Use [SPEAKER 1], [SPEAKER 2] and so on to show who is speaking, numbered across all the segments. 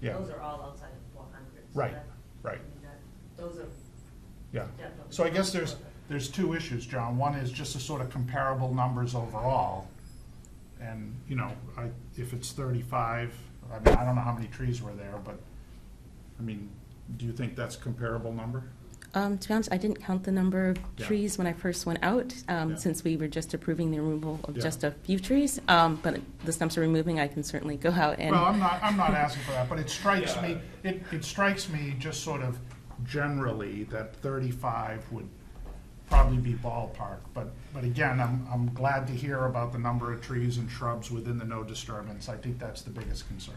[SPEAKER 1] Yeah.
[SPEAKER 2] Those are all outside of four hundred.
[SPEAKER 1] Right, right.
[SPEAKER 2] Those are,
[SPEAKER 1] Yeah,
[SPEAKER 2] Definitely.
[SPEAKER 1] so I guess there's, there's two issues, John. One is just the sort of comparable numbers overall. And, you know, I, if it's thirty-five, I mean, I don't know how many trees were there, but, I mean, do you think that's a comparable number?
[SPEAKER 3] Um, to be honest, I didn't count the number of
[SPEAKER 1] Yeah.
[SPEAKER 3] trees when I first went out,
[SPEAKER 1] Yeah.
[SPEAKER 3] um, since we were just approving the removal of
[SPEAKER 1] Yeah.
[SPEAKER 3] just a few trees. Um, but the stumps are removing, I can certainly go out and.
[SPEAKER 1] Well, I'm not, I'm not asking for that, but it strikes me,
[SPEAKER 4] Yeah.
[SPEAKER 1] it, it strikes me just sort of generally that thirty-five would probably be ballpark. But, but again, I'm, I'm glad to hear about the number of trees and shrubs within the no disturbance. I think that's the biggest concern.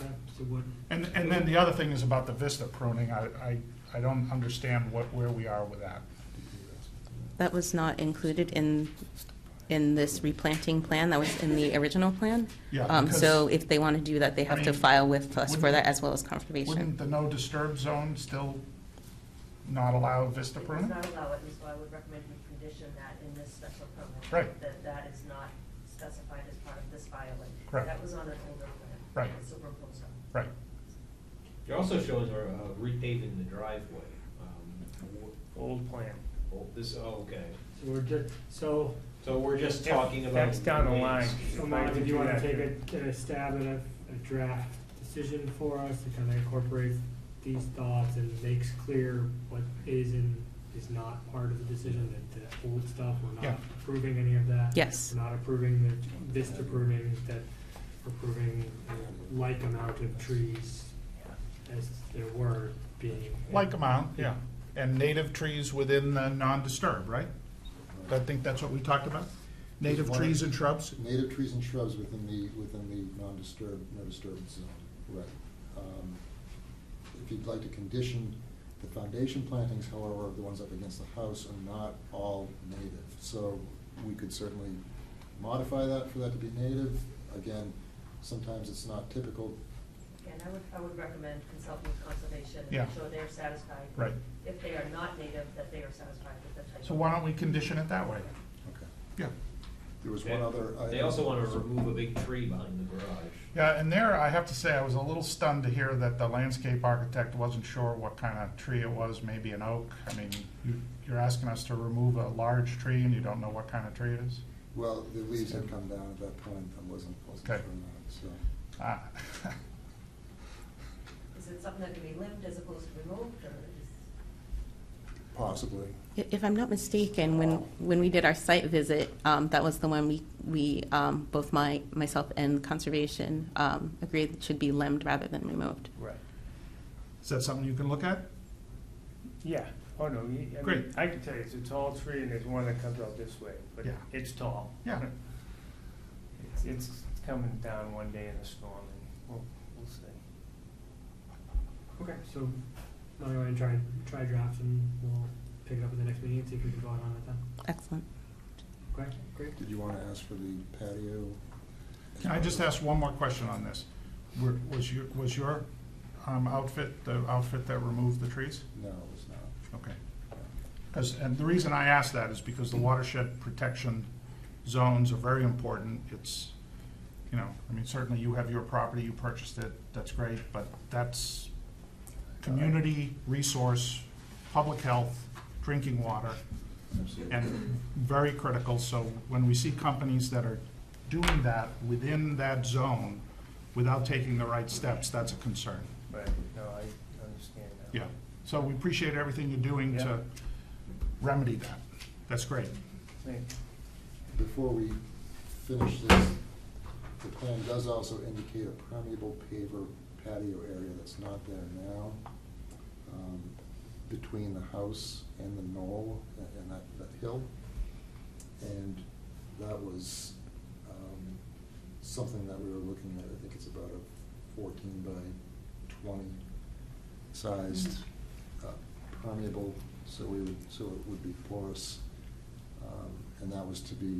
[SPEAKER 4] So what,
[SPEAKER 1] And, and then the other thing is about the vista pruning, I, I, I don't understand what, where we are with that.
[SPEAKER 3] That was not included in, in this replanting plan, that was in the original plan.
[SPEAKER 1] Yeah,
[SPEAKER 3] Um, so if they want to do that, they have to
[SPEAKER 1] I mean,
[SPEAKER 3] file with us for
[SPEAKER 1] wouldn't-
[SPEAKER 3] that as well as
[SPEAKER 1] Wouldn't
[SPEAKER 3] conservation.
[SPEAKER 1] the no disturb zone still not allow vista
[SPEAKER 2] it does
[SPEAKER 1] pruning?
[SPEAKER 2] not allow it, and so I would recommend we condition that in this special permit.
[SPEAKER 1] Right.
[SPEAKER 2] That that is not specified as part of this filing.
[SPEAKER 1] Correct.
[SPEAKER 2] That was on an older plan.
[SPEAKER 1] Right.
[SPEAKER 2] It's Superimposed on.
[SPEAKER 1] Right,
[SPEAKER 5] It also shows our uh, repaving the driveway. um, w-
[SPEAKER 4] old plan.
[SPEAKER 5] oh, This, oh, okay.
[SPEAKER 4] So we're just, so.
[SPEAKER 5] So we're just talking about.
[SPEAKER 4] That's down the line.
[SPEAKER 5] ways.
[SPEAKER 4] So Mike, if you wanna take a, a stab at a, a draft decision for us to kind of incorporate these thoughts and makes clear what is and is not part of the decision, that the old stuff, we're
[SPEAKER 1] Yeah.
[SPEAKER 4] not approving any of that.
[SPEAKER 3] Yes.
[SPEAKER 4] We're not approving the, this approving, that approving a like amount of trees as there were being.
[SPEAKER 1] like amount, yeah. And native trees within the non-disturb, right? I think that's what we talked about? Native trees and shrubs?
[SPEAKER 6] Native trees and shrubs within the, within the non-disturb, no disturbance zone, right. Um, If you'd like to condition the foundation plantings, however, the ones up against the house are not all native. So we could certainly modify that for that to be native. Again, sometimes it's not typical.
[SPEAKER 2] And I would, I would recommend consulting with conservation and
[SPEAKER 1] Yeah.
[SPEAKER 2] make sure they're satisfied.
[SPEAKER 1] Right.
[SPEAKER 2] If they are not native, that they are satisfied with the type.
[SPEAKER 1] So
[SPEAKER 2] of-
[SPEAKER 1] why don't we condition it that way?
[SPEAKER 6] Okay.
[SPEAKER 1] Yeah.
[SPEAKER 6] There was
[SPEAKER 5] They-
[SPEAKER 6] one other.
[SPEAKER 5] They
[SPEAKER 6] item.
[SPEAKER 5] also want to remove a big tree behind the garage.
[SPEAKER 1] Yeah, and there, I have to say, I was a little stunned to hear that the landscape architect wasn't sure what kind of tree it was, maybe an oak. I mean, you, you're asking us to remove a large tree and you don't know what kind of tree it is?
[SPEAKER 6] Well, the leaves had come down at that point. I wasn't, wasn't sure
[SPEAKER 1] Okay.
[SPEAKER 6] on that, so.
[SPEAKER 1] Ah.
[SPEAKER 2] Is it something that can be lived as opposed to removed, or is?
[SPEAKER 6] Possibly.
[SPEAKER 3] I- If I'm not mistaken, when, when we did our site visit, um, that was the one we, we, um, both my, myself and conservation, um, agreed it should be limbed rather than removed.
[SPEAKER 7] Right,
[SPEAKER 1] Is that something you can look at?
[SPEAKER 7] yeah, oh no, you- I mean,
[SPEAKER 1] Great.
[SPEAKER 7] I can tell you, it's a tall tree and there's one that comes out this way, but
[SPEAKER 1] Yeah.
[SPEAKER 7] it's tall.
[SPEAKER 1] Yeah.
[SPEAKER 7] It's, it's coming down one day in a storm and we'll, we'll see.
[SPEAKER 4] Okay, so why don't I try, try drafts and we'll pick it up at the next meeting and see if we can vote on it then.
[SPEAKER 3] Excellent.
[SPEAKER 4] Okay, great.
[SPEAKER 6] Did you want to ask for the patio?
[SPEAKER 1] Can I just ask one more question on this? Were- Was your, was your um, outfit, the outfit that removed the trees?
[SPEAKER 6] No, it was not.
[SPEAKER 1] Okay. 'Cause- and the reason I ask that is because the watershed protection zones are very important. It's, you know, I mean, certainly you have your property, you purchased it, that's great, but that's community resource, public health, drinking water,
[SPEAKER 6] Absolutely.
[SPEAKER 1] and very critical. So when we see companies that are doing that within that zone without taking the right steps, that's a concern.
[SPEAKER 7] But, no, I understand that.
[SPEAKER 1] Yeah, so we appreciate everything you're doing to remedy that. That's great.
[SPEAKER 7] Thank-
[SPEAKER 6] Before we finish this, the plan does also indicate a permeable paver patio area that's not there now, um, between the house and the knoll a- and that, that hill. And that was, um, something that we were looking at, I think it's about a fourteen by twenty sized, uh, permeable, so we would, so it would be porous. Um, And that was to be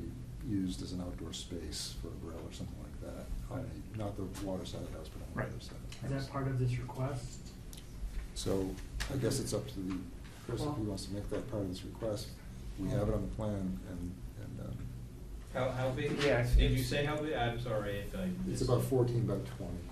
[SPEAKER 6] used as an outdoor space for a grill or something like that. on the- Not the water side of the house, but on
[SPEAKER 1] Right.
[SPEAKER 6] the other side. of the
[SPEAKER 4] Is that
[SPEAKER 6] house.
[SPEAKER 4] part of this request?
[SPEAKER 6] So I guess it's up to the person who wants to make that part of this request. We have it on the plan and, and um,
[SPEAKER 5] How, how big?
[SPEAKER 7] Yeah, it's-
[SPEAKER 5] Did you
[SPEAKER 7] it's-
[SPEAKER 5] say how big? I'm sorry if I.
[SPEAKER 6] it's
[SPEAKER 5] missed
[SPEAKER 6] about
[SPEAKER 5] it.
[SPEAKER 6] fourteen by twenty.